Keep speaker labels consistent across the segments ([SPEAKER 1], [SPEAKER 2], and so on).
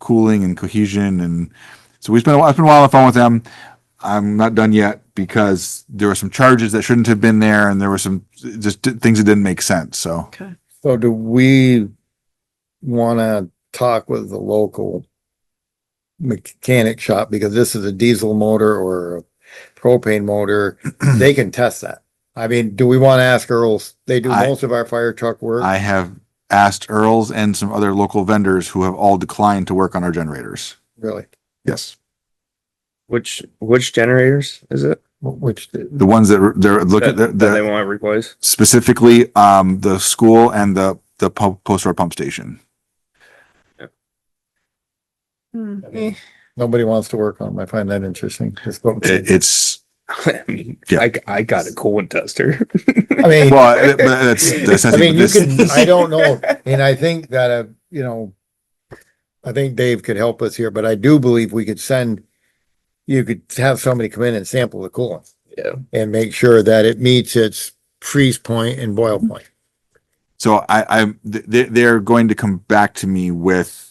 [SPEAKER 1] cooling and cohesion. And so we spent, a while- I spent a while on the phone with them. I'm not done yet because there were some charges that shouldn't have been there and there were some just di- things that didn't make sense. So
[SPEAKER 2] Okay.
[SPEAKER 3] So do we wanna talk with the local mechanic shop, because this is a diesel motor or a propane motor, they can test that. I mean, do we wanna ask Earl's, they do
[SPEAKER 1] I-
[SPEAKER 3] most of our fire truck work,
[SPEAKER 1] I have asked Earls and some other local vendors who have all declined to work on our generators.
[SPEAKER 3] really,
[SPEAKER 1] Yes.
[SPEAKER 4] Which, which generators is it
[SPEAKER 3] which,
[SPEAKER 1] The ones that are- they're looking,
[SPEAKER 4] that,
[SPEAKER 1] they're,
[SPEAKER 4] that they
[SPEAKER 1] they're
[SPEAKER 4] want to replace?
[SPEAKER 1] specifically, um, the school and the, the pu- post road pump station.
[SPEAKER 2] Hmm.
[SPEAKER 4] I mean-
[SPEAKER 3] nobody wants to work on, I find that interesting. Just-
[SPEAKER 1] It,
[SPEAKER 3] I
[SPEAKER 1] it's,
[SPEAKER 4] I mean,
[SPEAKER 1] Yeah.
[SPEAKER 4] I, I got a coolant tester.
[SPEAKER 3] mean,
[SPEAKER 1] well, it- but that's, that's.
[SPEAKER 3] I mean, you
[SPEAKER 1] this-
[SPEAKER 3] can, I don't know, and I think that, uh, you know, I think Dave could help us here, but I do believe we could send, you could have somebody come in and sample the coolant.
[SPEAKER 4] Yeah.
[SPEAKER 3] And make sure that it meets its freeze point and boil point.
[SPEAKER 1] So I, I, they, they're going to come back to me with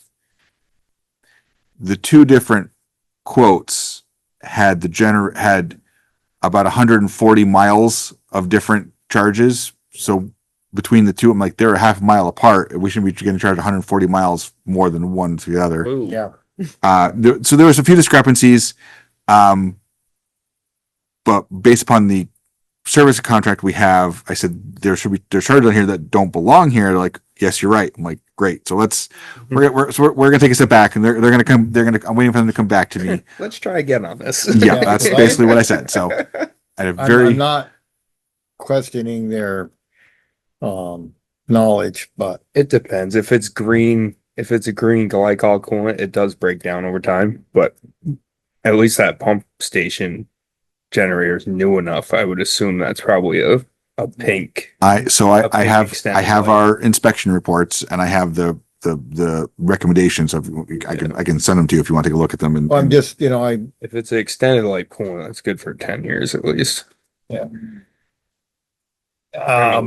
[SPEAKER 1] the two different quotes had the gener, had about hundred and forty miles of different charges. So between the two, I'm like, they're a half mile apart. We shouldn't be getting charged hundred and forty miles more than one to the other.
[SPEAKER 4] Ooh.
[SPEAKER 3] Yeah.
[SPEAKER 1] Uh, there, so there was a few discrepancies, um, but based upon the service contract we have, I said there should be there's charges on here that don't belong here. They're like, yes, you're right. I'm like, great. So let's
[SPEAKER 3] Mm-hmm.
[SPEAKER 1] we're we're, so we're, we're gonna take a step back, and they're they're gonna come. They're gonna. I'm waiting for them to come back to me.
[SPEAKER 4] Let's try again on this.
[SPEAKER 1] yeah, that's basically what I said. So at a
[SPEAKER 3] I'm,
[SPEAKER 1] very
[SPEAKER 3] I'm not questioning their, um, knowledge, but
[SPEAKER 4] It depends. If it's green, if it's a green glycol coolant, it does break down over time, but at least that pump station generator is new enough. I would assume that's probably a, a pink.
[SPEAKER 1] I so I,
[SPEAKER 4] Up to
[SPEAKER 1] I
[SPEAKER 4] the
[SPEAKER 1] have
[SPEAKER 4] extent
[SPEAKER 1] I have
[SPEAKER 4] like-
[SPEAKER 1] our inspection reports and I have the the the recommendations of I can I can send them to you if you want to take a look at them and,
[SPEAKER 3] I'm
[SPEAKER 1] and
[SPEAKER 3] just, you know, I,
[SPEAKER 4] If it's an extended life coolant, that's good for ten years at least.
[SPEAKER 3] um,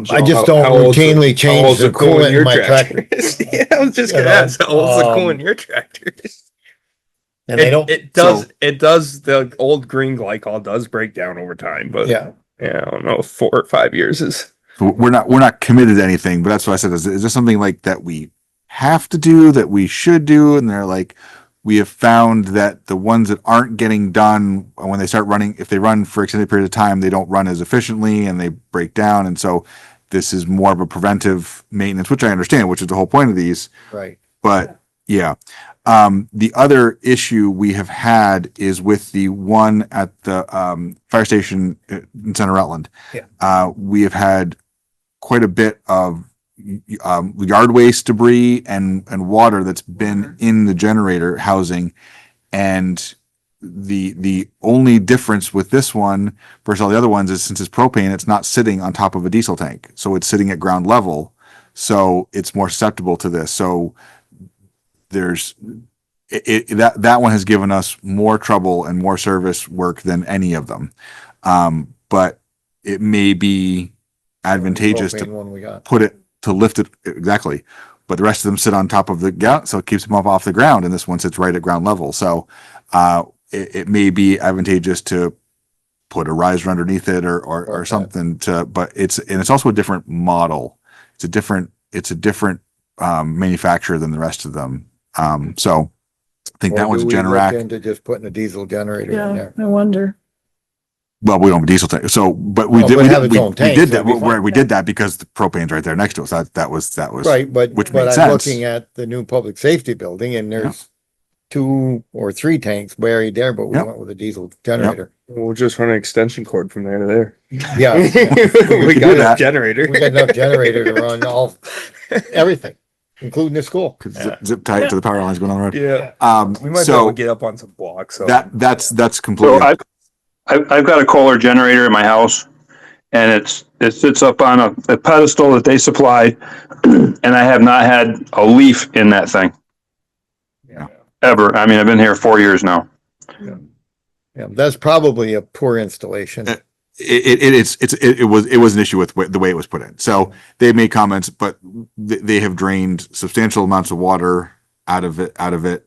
[SPEAKER 4] How-
[SPEAKER 3] I just
[SPEAKER 4] how
[SPEAKER 3] don't
[SPEAKER 4] old's the-
[SPEAKER 3] routinely
[SPEAKER 4] how
[SPEAKER 3] change
[SPEAKER 4] old's
[SPEAKER 3] the coolant in
[SPEAKER 4] your
[SPEAKER 3] my tractor.
[SPEAKER 4] tractors? Yeah, I was just
[SPEAKER 3] You
[SPEAKER 4] gonna
[SPEAKER 3] know,
[SPEAKER 4] ask, how old's the
[SPEAKER 3] um,
[SPEAKER 4] coolant in your tractors?
[SPEAKER 3] And they
[SPEAKER 4] It-
[SPEAKER 3] don't,
[SPEAKER 4] It does,
[SPEAKER 1] so-
[SPEAKER 4] it does, the old green glycol does break down over time, but
[SPEAKER 3] yeah,
[SPEAKER 4] yeah, I don't know, four or five years is.
[SPEAKER 1] So we're not we're not committed to anything but that's what i said is, is there something like that we have to do that we should do and they're like we have found that the ones that aren't getting done uh, when they start running if they run for extended period of time they don't run as efficiently and they break down and so this is more of a preventive maintenance which i understand which is the whole point of these
[SPEAKER 3] right.
[SPEAKER 1] but yeah. Um, the other issue we have had is with the one at the, um, fire station uh, in Center Rutland.
[SPEAKER 3] Yeah.
[SPEAKER 1] Uh, we have had quite a bit of, y- y- um, yard waste debris and, and water that's been in the generator housing. And the, the only difference with this one versus all the other ones is since it's propane, it's not sitting on top of a diesel tank. So it's sitting at ground level. So it's more susceptible to this. So, there's it, it that that one has given us more trouble and more service work than any of them um but it may be advantageous
[SPEAKER 3] Propane
[SPEAKER 1] to
[SPEAKER 3] One we got.
[SPEAKER 1] put it to lift it exactly but the rest of them sit on top of the gout so it keeps them up off the ground and this one sits right at ground level so uh it, it may be advantageous to put a riser underneath it or or, or
[SPEAKER 3] Okay.
[SPEAKER 1] something to but it's and it's also a different model it's a different it's a different um manufacturer than the rest of them um so i think that
[SPEAKER 3] Or
[SPEAKER 1] one's a
[SPEAKER 3] do we look
[SPEAKER 1] generac
[SPEAKER 3] Into just putting a diesel generator in
[SPEAKER 2] Yeah,
[SPEAKER 3] there.
[SPEAKER 2] I wonder.
[SPEAKER 1] well we don't have a diesel tank so but we
[SPEAKER 3] Oh,
[SPEAKER 1] did
[SPEAKER 3] but
[SPEAKER 1] we
[SPEAKER 3] it have
[SPEAKER 1] did,
[SPEAKER 3] its
[SPEAKER 1] we,
[SPEAKER 3] own
[SPEAKER 1] we
[SPEAKER 3] tank,
[SPEAKER 1] did
[SPEAKER 3] so
[SPEAKER 1] that
[SPEAKER 3] it'd be
[SPEAKER 1] we, we
[SPEAKER 3] fine.
[SPEAKER 1] did that because the propane's right there next to us that that was that was
[SPEAKER 3] Right, but,
[SPEAKER 1] which
[SPEAKER 3] but
[SPEAKER 1] makes
[SPEAKER 3] I'm
[SPEAKER 1] sense.
[SPEAKER 3] looking at the new public safety building and
[SPEAKER 1] Yeah.
[SPEAKER 3] there's two or three tanks buried there, but we
[SPEAKER 1] Yep.
[SPEAKER 3] went with a diesel generator.
[SPEAKER 4] We'll just run an extension cord from there to there.
[SPEAKER 3] Oh, Yeah,
[SPEAKER 4] we
[SPEAKER 1] do
[SPEAKER 4] got a
[SPEAKER 1] that.
[SPEAKER 4] generator.
[SPEAKER 3] we got enough generator to run all, everything, including the school.
[SPEAKER 1] Could zip, zip tie it to the power lines going on the road
[SPEAKER 4] Yeah,
[SPEAKER 1] um
[SPEAKER 4] we might be able
[SPEAKER 1] so
[SPEAKER 4] to get up on some blocks. So
[SPEAKER 1] that that's that's completely
[SPEAKER 5] So I've, I've, I've got a Kohler generator in my house and it's, it sits up on a, a pedestal that they supply. And I have not had a leaf in that thing
[SPEAKER 4] yeah.
[SPEAKER 5] ever. I mean, I've been here four years now.
[SPEAKER 3] Yeah, that's probably a poor installation.
[SPEAKER 1] Uh, it, it it's it's it, it was it was an issue with wh- the way it was put in. So they made comments, but th- they have drained substantial amounts of water out of it out of it